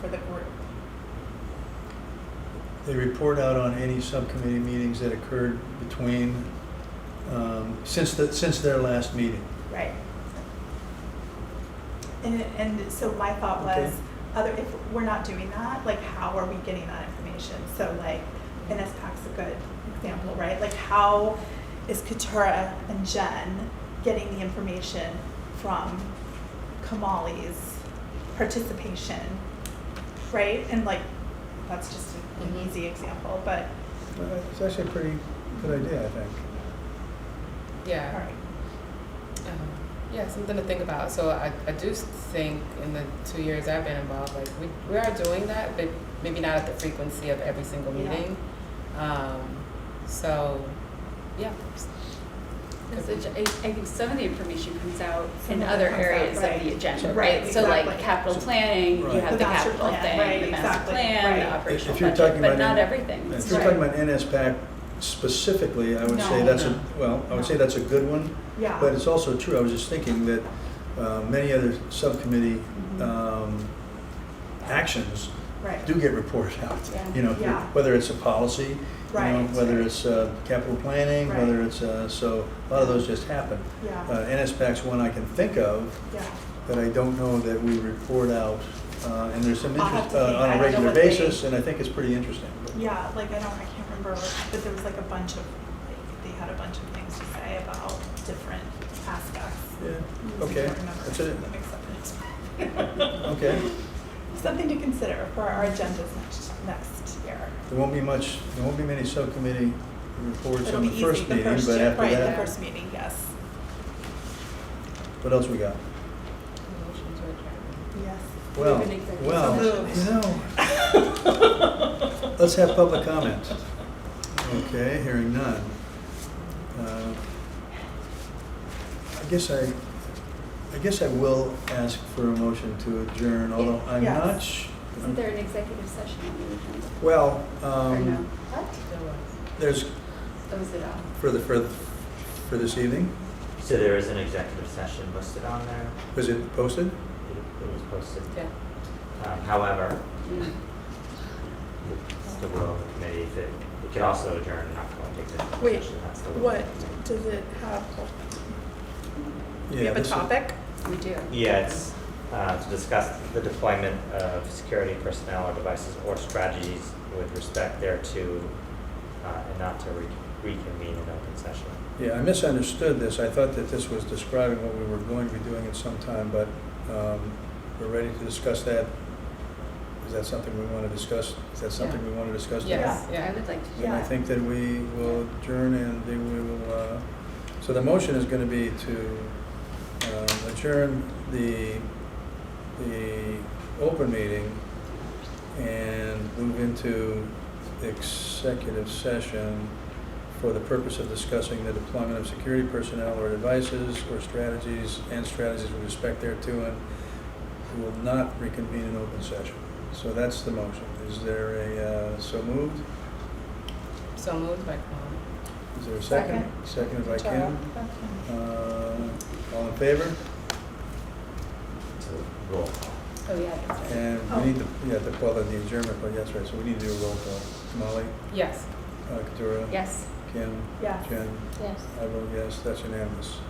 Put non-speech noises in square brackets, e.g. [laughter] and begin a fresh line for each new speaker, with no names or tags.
for the group.
They report out on any subcommittee meetings that occurred between, um, since the, since their last meeting.
Right. And, and so my thought
Okay.
was, other, if we're not doing that, like, how are we getting that information? So like, NSPAC's a good example, right? Like, how is Katura and Jen getting the information from Kamali's participation, right? And like, that's just an
Mhm.
easy example, but,
Well, It's actually a pretty good idea, I think.
all
Yeah.
right,
Um, yeah, something to think about. So I, I do s- think in the two years I've been involved, like we, we are doing that, but maybe not at the frequency of every single
Yeah.
meeting. Um, so, yeah.
Because the ge- I I think some of the information comes out in other
Some of it comes out,
areas of
right.
the agenda,
Right,
right? So like
exactly.
capital planning, you
Right.
have
The
the
master
capital
plan, right,
thing, the master
exactly,
plan,
right.
the
If
operational
you're talking
budget, but
about
not
in-
everything.
If
is
you're
Right.
talking about NSPAC specifically, I would say
No.
that's
No.
a, well, I would say that's a good one.
yeah.
But it's also true, I was just thinking that uh, many other subcommittee
Mm-hmm.
um, actions
Right.
do get reported out.
Yeah.
You know,
Yeah.
whether it's a policy, you know,
Right.
whether it's uh, capital planning,
Right.
whether it's, uh, so a lot of those just happen.
Yeah.
Uh, NSPAC's one I can think of,
Yeah.
but I don't know that we report out, uh, and there's some
I'll have
interest
to
uh,
think.
on
I don't
a
know
regular
what they-
basis, and I think it's pretty interesting.
Yeah, like I don't, I can't remember, but there was like a bunch of, like, they had a bunch of things to say about different aspects.
Yeah,
I
okay,
can't remember.
that's it,
That makes sense.
okay.
Something to consider for our agendas next, next year.
There won't be much, there won't be many subcommittee reports
It'll
on
be
the
easy,
first
the
meeting,
first,
but after
right, the
that,
first meeting, yes.
what else we got?
Motion to adjourn.
Yes.
Well,
an executive
well, you know, [laughs] let's have public comment. Okay, hearing none. Uh, I guess I, I guess I will ask for a motion to adjourn, although I'm
Yes.
not. sh-
Isn't there an executive session on the weekend?
Well,
Or no?
um,
What?
There was.
there's,
That was it all.
for the, for, for this evening,
So there is an executive session listed on there.
was it posted?
It it was posted.
Yeah.
Um, However,
Mm.
it's the will of the committee. If It it could also adjourn and not go into executive
Wait,
session. That's the will of the
What,
committee.
does it have,
Yeah.
we have a
this is-
topic?
We do.
Yeah, it's uh, to discuss the deployment of security personnel or devices or strategies with respect thereto uh, and not to re- reconvene in open session.
Yeah, I misunderstood this. I thought that this was describing what we were going to be doing at some time, but um, we're ready to discuss that. Is that something we want to discuss? Is that something we want to discuss? tonight?
Yes,
I
yeah.
would like to.
Then I think that we will adjourn and then we will, uh, so the motion is going to be to um, adjourn the, the open meeting and move into executive session for the purpose of discussing the deployment of security personnel or devices or strategies and strategies with respect thereto and we will not reconvene in open session. So that's the motion. Is there a, uh, so moved?
So moved by Kwame.
Is there a second? Seconded by Kim. Uh, All in favor?
So roll call.
Oh, yeah. that's right.
And we need to, yeah, to follow the adjournment, but yes, right, so we need to do a roll call. Molly,
Yes.
uh, Katura,
Yes.
Kim,
Yes.
Jen,
Yes.
I vote yes, that's unanimous.